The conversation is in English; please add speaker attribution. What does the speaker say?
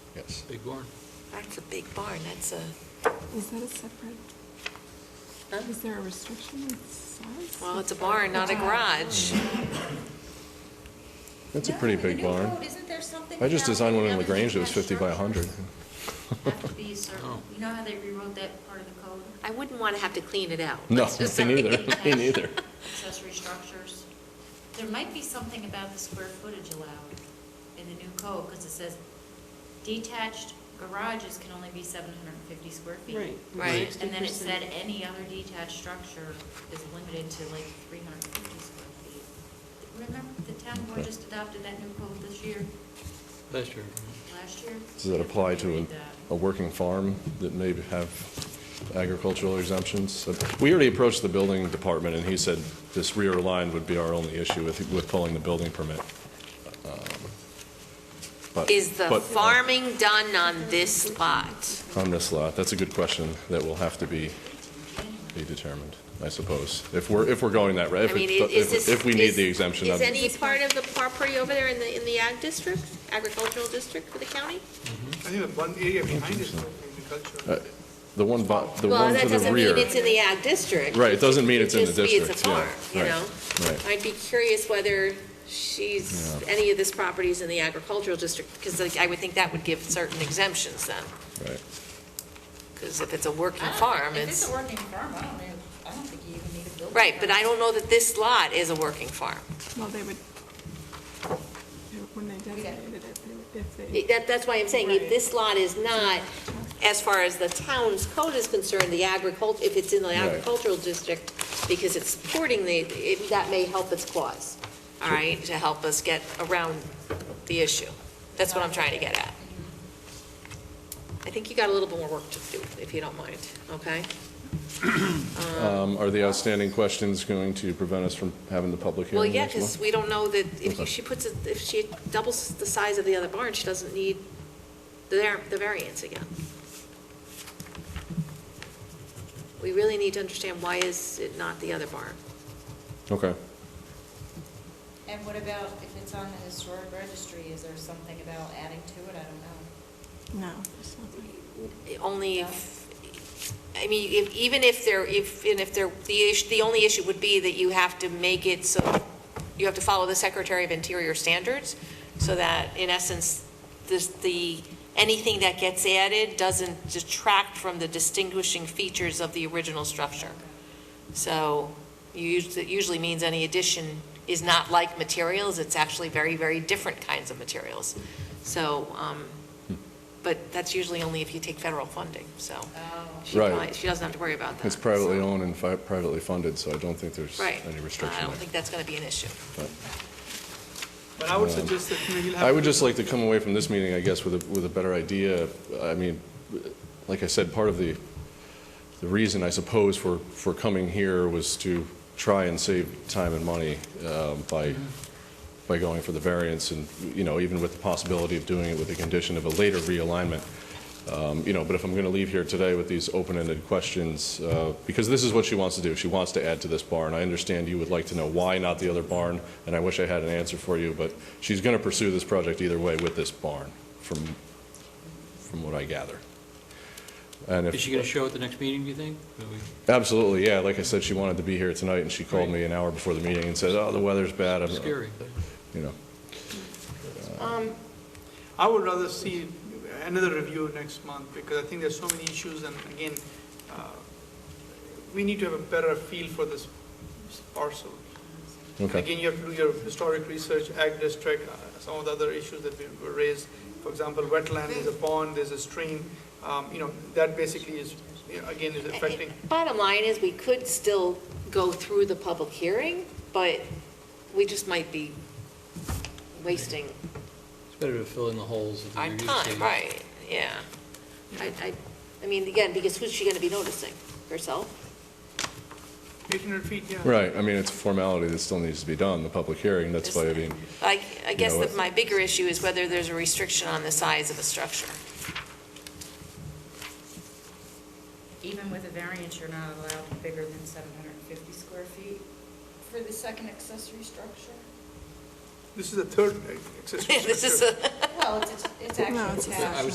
Speaker 1: Yes.
Speaker 2: Big barn.
Speaker 3: That's a big barn, that's a,
Speaker 4: Is that a separate, is there a restriction in size? uh,
Speaker 3: well, it's a barn, not a garage.
Speaker 1: That's a pretty
Speaker 5: No, in the
Speaker 1: big
Speaker 5: new
Speaker 1: barn.
Speaker 5: code, isn't there something
Speaker 1: I just
Speaker 5: about
Speaker 1: designed one in
Speaker 5: everything
Speaker 1: LaGrange that was 50 by
Speaker 5: has
Speaker 1: 100.
Speaker 5: Have to be a certain,
Speaker 2: Oh.
Speaker 5: you know how they rewrote that part of the code,
Speaker 3: I wouldn't want to have to clean it out.
Speaker 1: No,
Speaker 3: Let's just
Speaker 1: me
Speaker 3: say.
Speaker 1: neither, me neither.
Speaker 5: accessory structures? There might be something about the square footage allowed in the new code, because it says detached garages can only be seven hundred and fifty square feet.
Speaker 6: Right.
Speaker 3: Right.
Speaker 5: And then
Speaker 6: 60%.
Speaker 5: it said any other detached structure is limited to like three hundred and fifty square feet. Remember, the town board just adopted that new code this year,
Speaker 2: Last year.
Speaker 5: last year?
Speaker 1: Does that apply to
Speaker 5: Read
Speaker 1: an-
Speaker 5: that.
Speaker 1: a working farm that may have agricultural exemptions? So We already approached the building department, and he said this rear line would be our only issue with, with pulling the building permit. Um, but-
Speaker 3: Is the
Speaker 1: but-
Speaker 3: farming done on this lot?
Speaker 1: On this lot, that's a good question that will have to be, be determined, I suppose. If we're, if we're going that, route,
Speaker 3: I
Speaker 1: if,
Speaker 3: mean, i- is
Speaker 1: if
Speaker 3: this?
Speaker 1: if we need
Speaker 3: is-
Speaker 1: the exemption.
Speaker 3: Is
Speaker 1: I'd-
Speaker 3: any part of the property over there in the, in the ag district, agricultural district for the county?
Speaker 7: I think the one area behind is agriculture.
Speaker 1: Uh, The one, bo- the
Speaker 3: Well,
Speaker 1: one to
Speaker 3: that
Speaker 1: the
Speaker 3: doesn't mean
Speaker 1: rear.
Speaker 3: it's in the ag district.
Speaker 1: Right, it doesn't mean it's in the
Speaker 3: Just means
Speaker 1: district, yeah,
Speaker 3: a farm, you
Speaker 1: right,
Speaker 3: know?
Speaker 1: right.
Speaker 3: I'd be curious whether she's,
Speaker 1: Yeah.
Speaker 3: any of this property is in the agricultural district, because like, I would think that would give certain exemptions then,
Speaker 1: Right.
Speaker 3: because if it's a working
Speaker 5: I don't-
Speaker 3: farm,
Speaker 5: If it's
Speaker 3: Ah, it's,
Speaker 5: a working farm, I don't know, I don't think you even need a building.
Speaker 3: right, but I
Speaker 5: permit.
Speaker 3: don't know that this lot is a working farm.
Speaker 4: Well, they would, when they designated it, they would- if they.
Speaker 3: It- That, that's why I'm saying, if
Speaker 4: Right.
Speaker 3: this lot is not, as far as the town's code is concerned, the agricult, if it's in the
Speaker 1: Right.
Speaker 3: agricultural district, because it's supporting the, it- that may help its cause, all right, to help us get around the issue. That's what I'm trying to get at. I think you got a little bit more work to do, if you don't mind, okay?
Speaker 1: Um, Are the outstanding questions going to prevent us from having the public
Speaker 3: Well,
Speaker 1: hearing
Speaker 3: yeah,
Speaker 1: next
Speaker 3: because
Speaker 1: month?
Speaker 3: we don't know that, if
Speaker 1: Okay.
Speaker 3: she puts it, if she doubles the size of the other barn, she doesn't need the, var- the variance again. We really need to understand why is it not the other barn?
Speaker 1: Okay.
Speaker 5: And what about if it's on the historic registry, is there something about adding to it? I don't know.
Speaker 4: No, there's nothing.
Speaker 3: Only if, I mean, if, even if there, if, and if there, the issue, the only issue would be that you have to make it so, you have to follow the Secretary of Interior standards, so that, in essence, this, the, anything that gets added doesn't detract from the distinguishing features of the original structure. So, you, us- it usually means any addition is not like materials, it's actually very, very different kinds of materials. So, um,
Speaker 1: Hmm.
Speaker 3: but that's usually only if you take federal funding, so. she
Speaker 1: Right.
Speaker 3: probably- She doesn't have to worry about that.
Speaker 1: It's privately
Speaker 3: so-
Speaker 1: owned and fi- privately funded, so I don't think there's
Speaker 3: Right. Uh,
Speaker 1: any
Speaker 3: I
Speaker 1: restriction
Speaker 3: don't think
Speaker 1: there.
Speaker 3: that's going to be an issue.
Speaker 1: But
Speaker 7: But I would suggest that maybe we'll have.
Speaker 1: I would just like to come away from this meeting, I guess, with a, with a better idea. I mean, like I said, part of the, the reason, I suppose, for, for coming here was to try and save time and money um, by, by going for the variance and, you know, even with the possibility of doing it with the condition of a later realignment. Um, You know, but if I'm going to leave here today with these open-ended questions, uh, because this is what she wants to do. She wants to add to this barn. I understand you would like to know why not the other barn, and I wish I had an answer for you, but she's going to pursue this project either way with this barn, from, from what I gather. And if
Speaker 2: Is she going to show at the next meeting, do you think? Will we-
Speaker 1: Absolutely, yeah. Like I said, she wanted to be here tonight, and she called me an hour before the meeting and said, "Oh, the weather's bad." I'm
Speaker 2: Scary.
Speaker 1: You know,
Speaker 7: I would rather see another review next month, because I think there's so many issues, and again, uh, we need to have a better feel for this parcel. And
Speaker 1: okay,
Speaker 7: Again, you have to do your historic research, ag district, uh, some of the other issues that we- were raised. For example, wetland, there's a pond, there's a stream, um, you know, that basically is, you know, again, is affecting.
Speaker 3: Bottom line is, we could still go through the public hearing, but we just might be wasting
Speaker 2: It's better to fill in the holes of the
Speaker 3: our
Speaker 2: review
Speaker 3: time,
Speaker 2: stage.
Speaker 3: right? Yeah. I, I, I mean, again, because who's she going to be noticing? Herself?
Speaker 7: 800 feet, yeah.
Speaker 1: right. I mean, it's a formality that still needs to be done, the public hearing. That's why I mean,
Speaker 3: I, I guess
Speaker 1: know
Speaker 3: that
Speaker 1: what?
Speaker 3: my bigger issue is whether there's a restriction on the size of a structure.
Speaker 5: Even with a variance, you're not allowed bigger than seven hundred and fifty square feet? For the second accessory structure?
Speaker 7: This is the third accessory
Speaker 3: This is
Speaker 7: structure.
Speaker 3: a.
Speaker 5: Well, it's, it's
Speaker 4: No, it's
Speaker 5: actually
Speaker 4: a
Speaker 5: attached.
Speaker 2: I would